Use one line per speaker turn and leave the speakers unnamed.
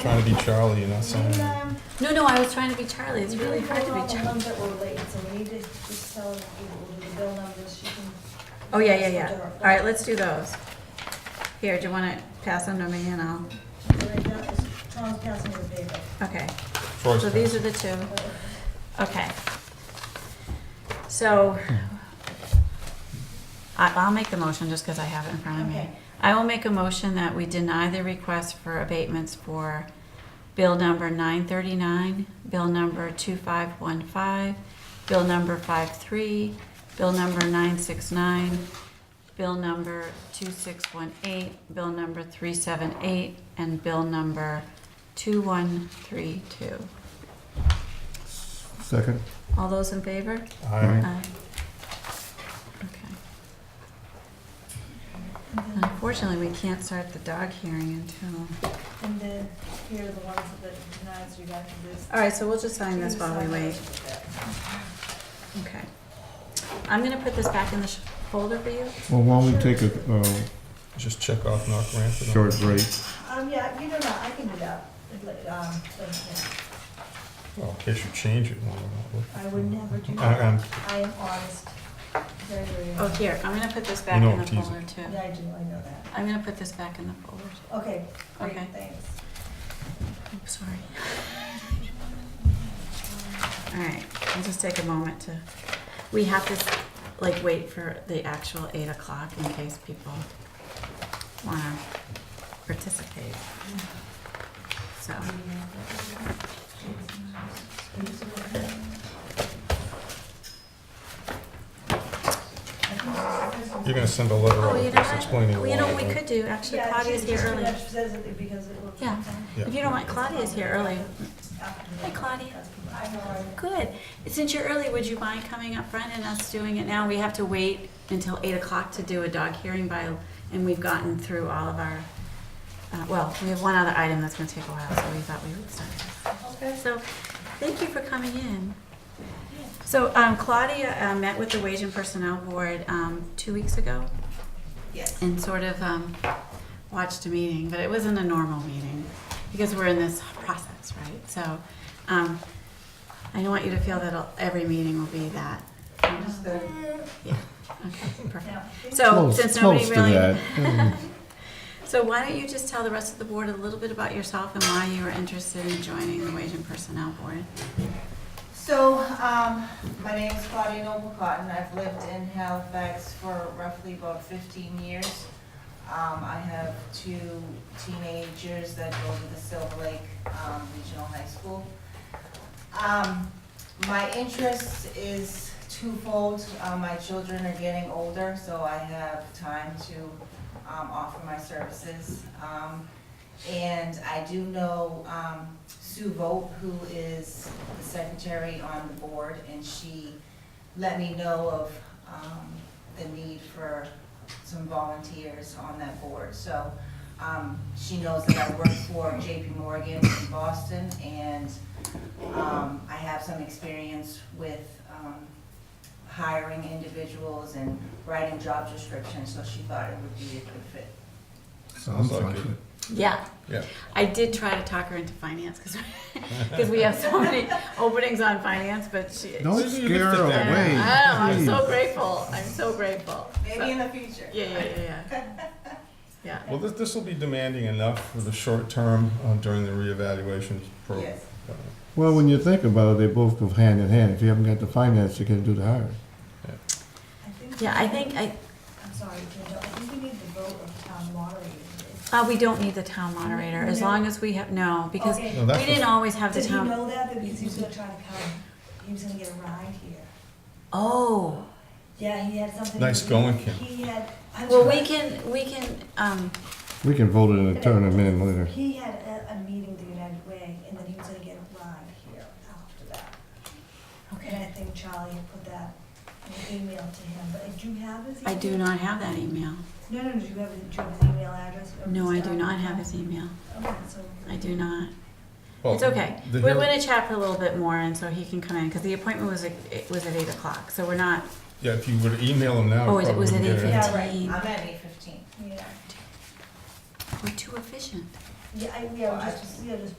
trying to be Charlie, you're not saying.
No, no, I was trying to be Charlie. It's really hard to be
We're
Charlie.
all the ones that were late, so we need to just tell the people to do the bill numbers, you can.
Oh, yeah, yeah, yeah. All right, let's do those. Here, do you want to pass them to me and I'll,
Right, that was Tom's passing the paper.
okay.
Troy's
So these are the two. Okay. So I- I'll make the motion just because I have it in front of me.
Okay.
I will make a motion that we deny the request for abatements for bill number 939, bill number 2515, bill number 53, bill number 969, bill number 2618, bill number 378, and bill number 2132.
Second.
All those in favor?
Aye.
Aye. Okay. Unfortunately, we can't start the dog hearing until,
And then here are the ones that denied, so you got to this.
all right, so we'll just sign this while we wait. Okay. I'm gonna put this back in the sh- folder for you.
Well, why don't we take a uh,
Just check off not granted. on
short
this.
break?
Um, yeah, you know, what, I can do that, If, like, um, like, yeah,
Well, in case you change it. when we're not looking.
I would never do
I-
that,
I'm-
I am honest, very, very
Oh,
honest.
here, I'm gonna put this
You
back
know
in the
I'm teasing.
folder too.
Yeah, I do, I know that.
I'm gonna put this back in the folder too.
Okay, great,
Okay.
thanks.
I'm sorry. All right, I'll just take a moment to, we have to, like, wait for the actual eight o'clock in case people wanna participate. So,
You're gonna send a letter
oh,
out
you know
explaining
what,
why.
you know, what we
right?
could do, actually
Yeah,
Claudia's
she-
here
she
early.
actually says it because it will-
Yeah. If you don't want, Claudia's here early. Hi, Claudia.
I know, I-
Good. Since you're early, would you mind coming up front and us doing it now? We have to wait until eight o'clock to do a dog hearing by, and we've gotten through all of our, uh, well, we have one other item that's gonna take a while, so we thought we would start.
Okay.
So, thank you for coming in. So um, Claudia uh, met with the Wage and Personnel Board um, two weeks ago
Yes.
and sort of um, watched a meeting, but it wasn't a normal meeting because we're in this process, right? So um, I don't want you to feel that it'll- every meeting will be that. Yeah, okay, perfect.
Now,
So
Close-
Oh, since nobody
close to
really,
that. Mm.
so why don't you just tell the rest of the board a little bit about yourself and why you were interested in joining the Wage and Personnel Board?
So, um, my name is Claudia Noble Cotton. I've lived in Halifax for roughly about fifteen years. Um, I have two teenagers that go to the Silver Lake, um, Regional High School. Um, my interest is twofold. Uh, my children are getting older, so I have time to, um, offer my services. Um, and I do know, um, Sue Vogt, who is the secretary on the board, and she let me know of um, the need for some volunteers on that board. So um, she knows that I work for JP Morgan in Boston, and um, I have some experience with um, hiring individuals and writing job descriptions, so she thought it would be a good fit.
Sounds like it.
Yeah.
Yeah.
I did try to talk her into finance because we have so many openings on finance, but she.
Don't
Susan, you
scare
lifted
her
I
that.
don't know.
away.
I am so
please.
grateful. I'm so grateful.
Maybe in the future.
Yeah, yeah, yeah, yeah. Yeah.
Well, this, this will be demanding enough for the short term uh, during the reevaluation program.
Yes.
Well, when you think about it, they both go hand in hand. If you haven't got the finance, you can't do the hiring.
I think-
Yeah, I think, I,
I'm sorry, Ginger, I think we need the vote of town moderator.
uh, we don't need the town moderator, as long as we have, no, because
Okay.
No,
we
that's
didn't
what-
always have the
Did he
town.
know that, because he was gonna try to come, he was gonna get a ride here?
Oh,
Yeah, he had something.
Nice
he-
going, Kim.
He had. I'm
well,
sorry.
we can, we can, um,
We can vote it in a turn a minute later.
He had a, a meeting with the United Way, and then he was gonna get a ride here after that. And I
okay.
think Charlie had put that in an email to him, but do you have his email?
I do not have that email.
No, no, no, do you have, do you have his email address? or
No, I
his
do
phone
not
number?
have his email.
Okay, so.
I do not.
Well,
It's okay.
the
We're
hear-
gonna chat for a little bit more, and so he can come in, because the appointment was, at- it was at eight o'clock, so we're not,
Yeah, if you would email them now.
oh,
you
it
probably
was at eight
wouldn't get it.
Yeah, right.
fifteen.
I'm at eight fifteen.
Yeah,
We're too efficient.
yeah, I, yeah, just, yeah, just